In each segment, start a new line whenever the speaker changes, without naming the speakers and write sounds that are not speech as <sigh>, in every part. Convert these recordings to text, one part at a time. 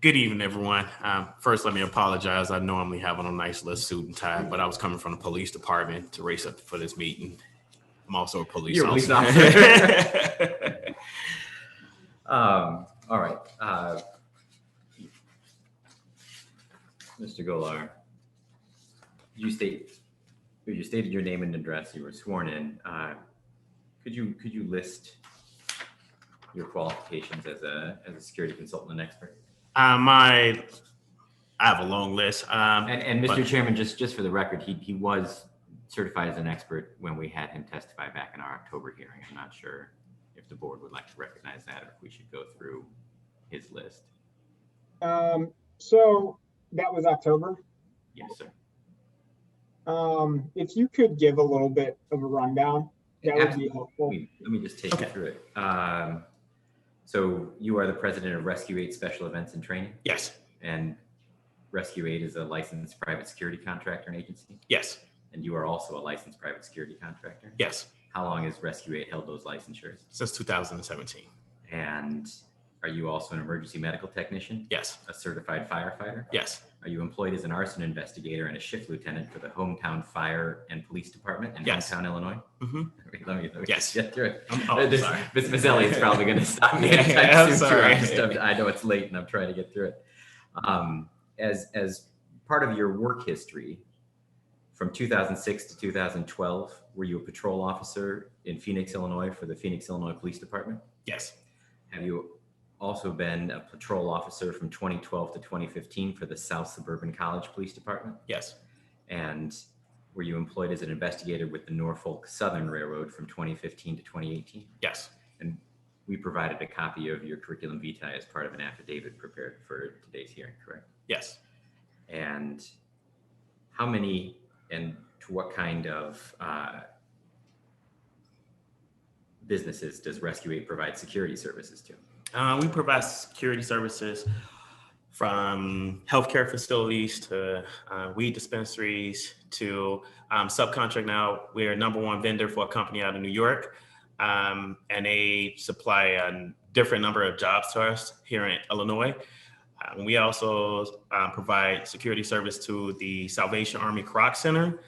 Good evening, everyone. Um, first, let me apologize. I normally have on a nice little suit and tie, but I was coming from the police department to race up for this meeting. I'm also a police
You're a police
officer.
Um, all right. uh, Mr. Golar, you state, you stated your name and address, you were sworn in. Uh, Could you, could you list your qualifications as a, as a security consultant and expert?
<laughs> uh, my, I have a long list. Um,
And, and Mr.
But-
Chairman, just, just for the record, he, he was certified as an expert when we had him testify back in our October hearing. I'm not sure if the board would like to recognize that or if we should go through his list.
Um, so that was October.
Yes, sir.
Um, if you could give a little bit of a rundown, that would be
Absolutely. Let
helpful.
me- let me just take you
Okay.
through it. Um, So you are the president of Rescue Aid Special Events and Training,
yes,
and Rescue Aid is a licensed private security contractor and agency,
yes,
and you are also a licensed private security contractor.
yes.
How long has Rescue Aid held those licensures?
Since 2017.
And are you also an emergency medical technician,
Yes,
a certified firefighter?
yes,
Are you employed as an arson investigator and a shift lieutenant for the hometown fire and police department in
Yes.
hometown Illinois? <laughs>
Mhm.
Wait, Let me, let me
Yes.
get through it.
I'm,
Uh,
oh,
this-
sorry.
Miss Miss Elliott's probably
<laughs>
going to stop me.
Yeah,
anytime
I'm
soon, too.
sorry.
I'm just- I'm- I know it's late and I'm trying to get through it. Um, as as part of your work history, from 2006 to 2012, were you a patrol officer in Phoenix, Illinois, for the Phoenix, Illinois Police Department?
Yes,
Have you also been a patrol officer from 2012 to 2015 for the South Suburban College Police Department?
yes,
And were you employed as an investigator with the Norfolk Southern Railroad from 2015 to 2018?
yes,
we provided a copy of your curriculum vitae as part of an affidavit prepared for today's hearing, correct?
yes.
And how many and to what kind of uh, businesses does Rescue Aid provide security services to?
Uh, we provide security services from healthcare facilities to uh, weed dispensaries to um, subcontract. Now we're number one vendor for a company out of New York, um, and they supply a different number of jobs to us here in Illinois. Um, we also uh, provide security service to the Salvation Army Croc Center,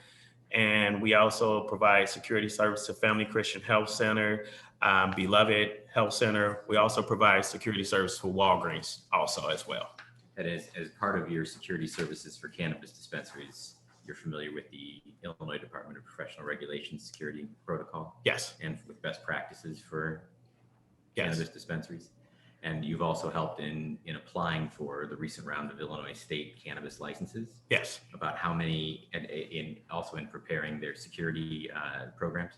and we also provide security service to Family Christian Health Center, um, Beloved Health Center. We also provide security service for Walgreens also as well.
That is, as part of your security services for cannabis dispensaries, you're familiar with the Illinois Department of Professional Regulation Security Protocol
Yes,
and with best practices for
yes,
cannabis dispensaries. And you've also helped in, in applying for the recent round of Illinois state cannabis licenses
yes.
about how many, and in, also in preparing their security uh, programs.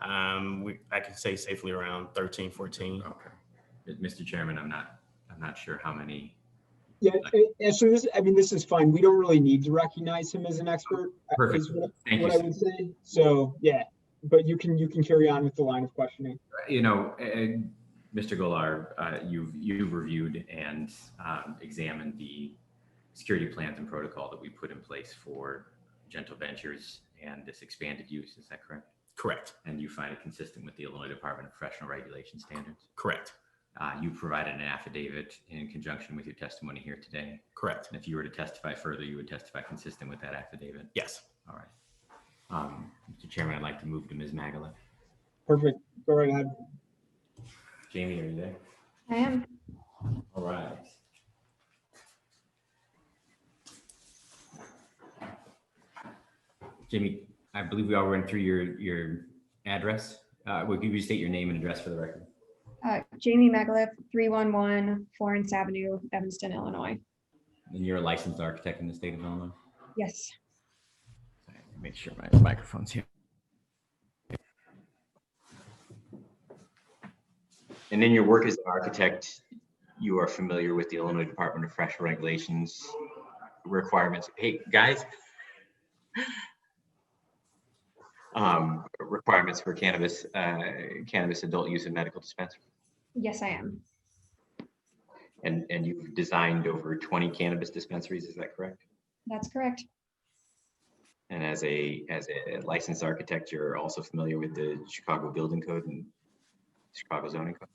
Um, we, I can say safely around 13, 14.
Okay. Mr. Chairman, I'm not, I'm not sure how many.
Yeah, and- and so this, I mean, this is fine. We don't really need to recognize him as an expert. uh,
Perfect.
is what-
Thank you.
What I
sir.
would say. So, yeah, but you can, you can carry on with the line of questioning.
You know, and Mr. Golar, uh, you've, you've reviewed and um, examined the security plans and protocol that we put in place for Gentle Ventures and this expanded use. Is that correct?
Correct,
and you find it consistent with the Illinois Department of Professional Regulation standards.
correct,
Uh, you provided an affidavit in conjunction with your testimony here today.
correct.
And if you were to testify further, you would testify consistent with that affidavit.
Yes.
All right. Um, Mr. Chairman, I'd like to move to Ms. Magala.
Perfect. Go right ahead.
Jamie, are you there?
I am.
All right. Jamie, I believe we all ran through your, your address. Uh, would you state your name and address for the record?
Uh, Jamie McAuliffe, 311 Florence Avenue, Evanston, Illinois.
And you're a licensed architect in the state of Illinois?
Yes.
Make sure my microphone's here. And in your work as an architect, you are familiar with the Illinois Department of Fresh Regulations requirements. Hey, guys. Um, requirements for cannabis, uh, cannabis adult use in medical dispensary.
Yes, I am.
And, and you've designed over 20 cannabis dispensaries, is that correct?
That's correct.
And as a, as a licensed architect, you're also familiar with the Chicago Building Code and Chicago zoning code?